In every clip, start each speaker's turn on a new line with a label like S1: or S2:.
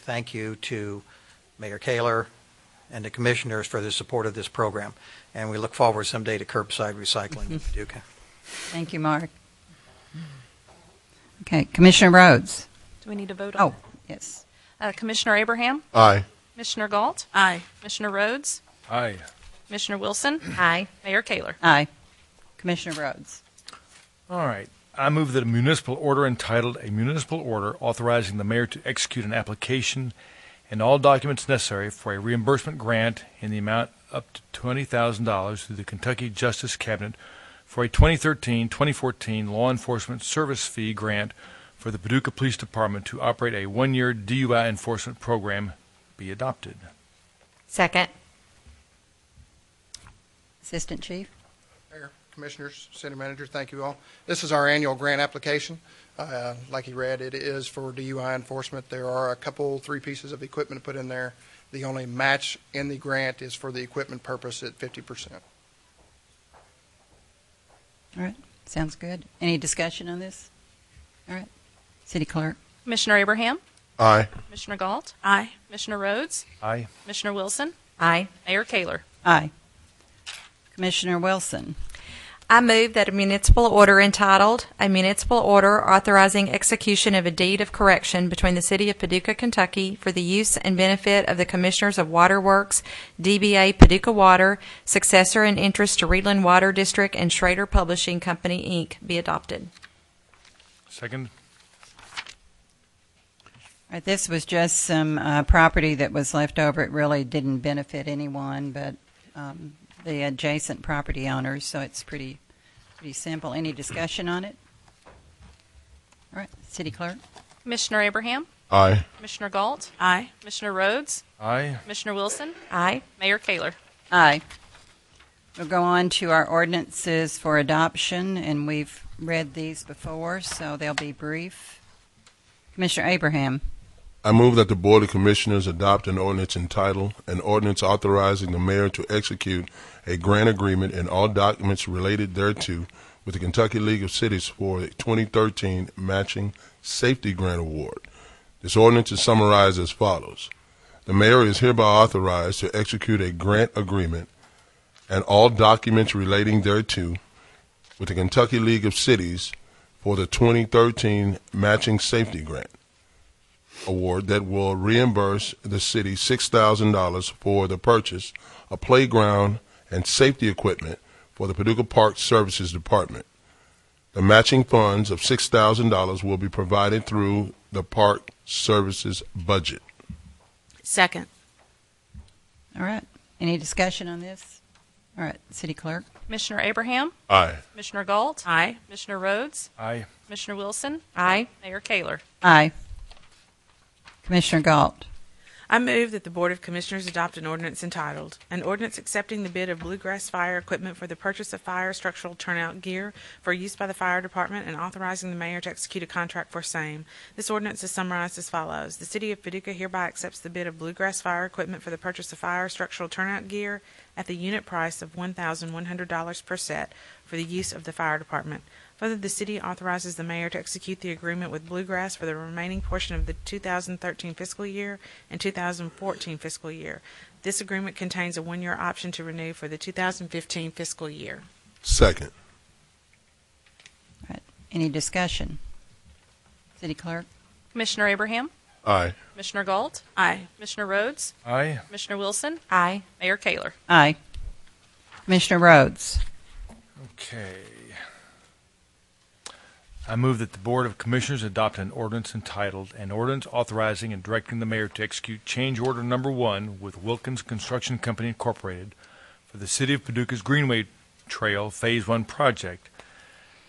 S1: thank you to Mayor Kaler and the commissioners for the support of this program. And we look forward someday to curbside recycling in Paducah.
S2: Thank you, Mark. Okay, Commissioner Rhodes.
S3: Do we need to vote on
S2: Oh, yes.
S3: it? Uh, Commissioner Abraham?
S4: Aye.
S3: Commissioner Galt? Aye. Commissioner Rhodes?
S5: Aye.
S3: Commissioner Wilson? Aye. Mayor Kaler?
S2: Aye. Commissioner Rhodes.
S5: All right. I move that a municipal order entitled "A Municipal Order Authorizing the Mayor to Execute an Application and All Documents Necessary for a Reimbursement Grant in the Amount Up to $20,000 Through the Kentucky Justice Cabinet for a 2013-2014 Law Enforcement Service Fee Grant for the Paducah Police Department to operate a one-year DUI enforcement program be adopted."
S6: Second.
S2: Assistant Chief.
S4: Mayor, Commissioners, City Manager, thank you all. This is our annual grant application. Uh, Like you read, it is for DUI enforcement. There are a couple, three pieces of equipment put in there. The only match in the grant is for the equipment purpose at 50%.
S2: All right, sounds good. Any discussion on this? All right, City Clerk.
S3: Commissioner Abraham?
S4: Aye.
S3: Commissioner Galt? Aye. Commissioner Rhodes?
S5: Aye.
S3: Commissioner Wilson?
S6: Aye.
S3: Mayor Kaler?
S2: Aye. Commissioner Wilson.
S6: I move that a municipal order entitled, "A Municipal Order Authorizing Execution of a Deed of Correction Between the City of Paducah, Kentucky for the Use and Benefit of the Commissioners of Waterworks, DBA Paducah Water, Successor in Interest to Reedland Water District and Schrader Publishing Company, Inc., be adopted."
S5: Second?
S2: All right, this was just some uh, property that was left over. It really didn't benefit anyone but um, the adjacent property owners, so it's pretty, pretty simple. Any discussion on it? All right, City Clerk.
S3: Commissioner Abraham?
S4: Aye.
S3: Commissioner Galt?
S6: Aye.
S3: Commissioner Rhodes?
S5: Aye.
S3: Commissioner Wilson?
S6: Aye.
S3: Mayor Kaler?
S2: Aye. We'll go on to our ordinances for adoption, and we've read these before, so they'll be brief. Commissioner Abraham.
S7: I move that the Board of Commissioners adopt an ordinance entitled, an ordinance authorizing the mayor to execute a grant agreement and all documents related thereto with the Kentucky League of Cities for a 2013 matching safety grant award. This ordinance is summarized as follows. The mayor is hereby authorized to execute a grant agreement and all documents relating thereto with the Kentucky League of Cities for the 2013 matching safety grant award that will reimburse the city $6,000 for the purchase of playground and safety equipment for the Paducah Park Services Department. The matching funds of $6,000 will be provided through the park services budget.
S8: Second.
S2: All right. Any discussion on this? All right, City Clerk.
S3: Commissioner Abraham?
S7: Aye.
S3: Commissioner Galt?
S8: Aye.
S3: Commissioner Rhodes?
S5: Aye.
S3: Commissioner Wilson?
S6: Aye.
S3: Mayor Kaler?
S2: Aye. Commissioner Galt.
S8: I move that the Board of Commissioners adopt an ordinance entitled, "An Ordinance Accepting the Bid of Bluegrass Fire Equipment for the Purchase of Fire Structural Turnout Gear for Use by the Fire Department and Authorizing the Mayor to Execute a Contract for Same." This ordinance is summarized as follows. The City of Paducah hereby accepts the bid of Bluegrass Fire Equipment for the purchase of fire structural turnout gear at the unit price of $1,100 per set for the use of the Fire Department. Further, the city authorizes the mayor to execute the agreement with Bluegrass for the remaining portion of the 2013 fiscal year and 2014 fiscal year. This agreement contains a one-year option to renew for the 2015 fiscal year.
S7: Second.
S2: Any discussion? City Clerk.
S3: Commissioner Abraham?
S7: Aye.
S3: Commissioner Galt?
S8: Aye.
S3: Commissioner Rhodes?
S5: Aye.
S3: Commissioner Wilson?
S6: Aye.
S3: Mayor Kaler?
S2: Aye. Commissioner Rhodes.
S5: Okay. I move that the Board of Commissioners adopt an ordinance entitled, "An Ordinance Authorizing and Directing the Mayor to Execute Change Order Number One with Wilkins Construction Company Incorporated for the City of Paducah's Greenway Trail Phase One Project."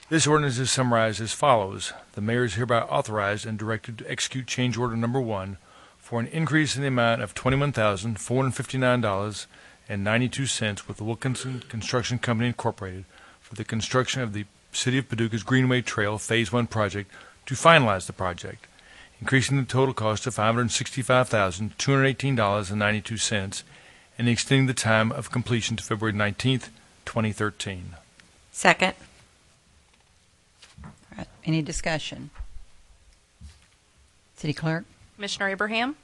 S5: This ordinance is summarized as follows. The mayor is hereby authorized and directed to execute change order number one for an increase in the amount of twenty-one thousand, four hundred fifty-nine dollars and ninety-two cents with Wilkinson Construction Company Incorporated for the construction of the City of Paducah's Greenway Trail Phase One project to finalize the project, increasing the total cost to five hundred sixty-five thousand, two hundred eighteen dollars and ninety-two cents, and extending the time of completion to February nineteenth, twenty thirteen.
S6: Second.
S2: All right. Any discussion? City Clerk.
S3: Commissioner Abraham?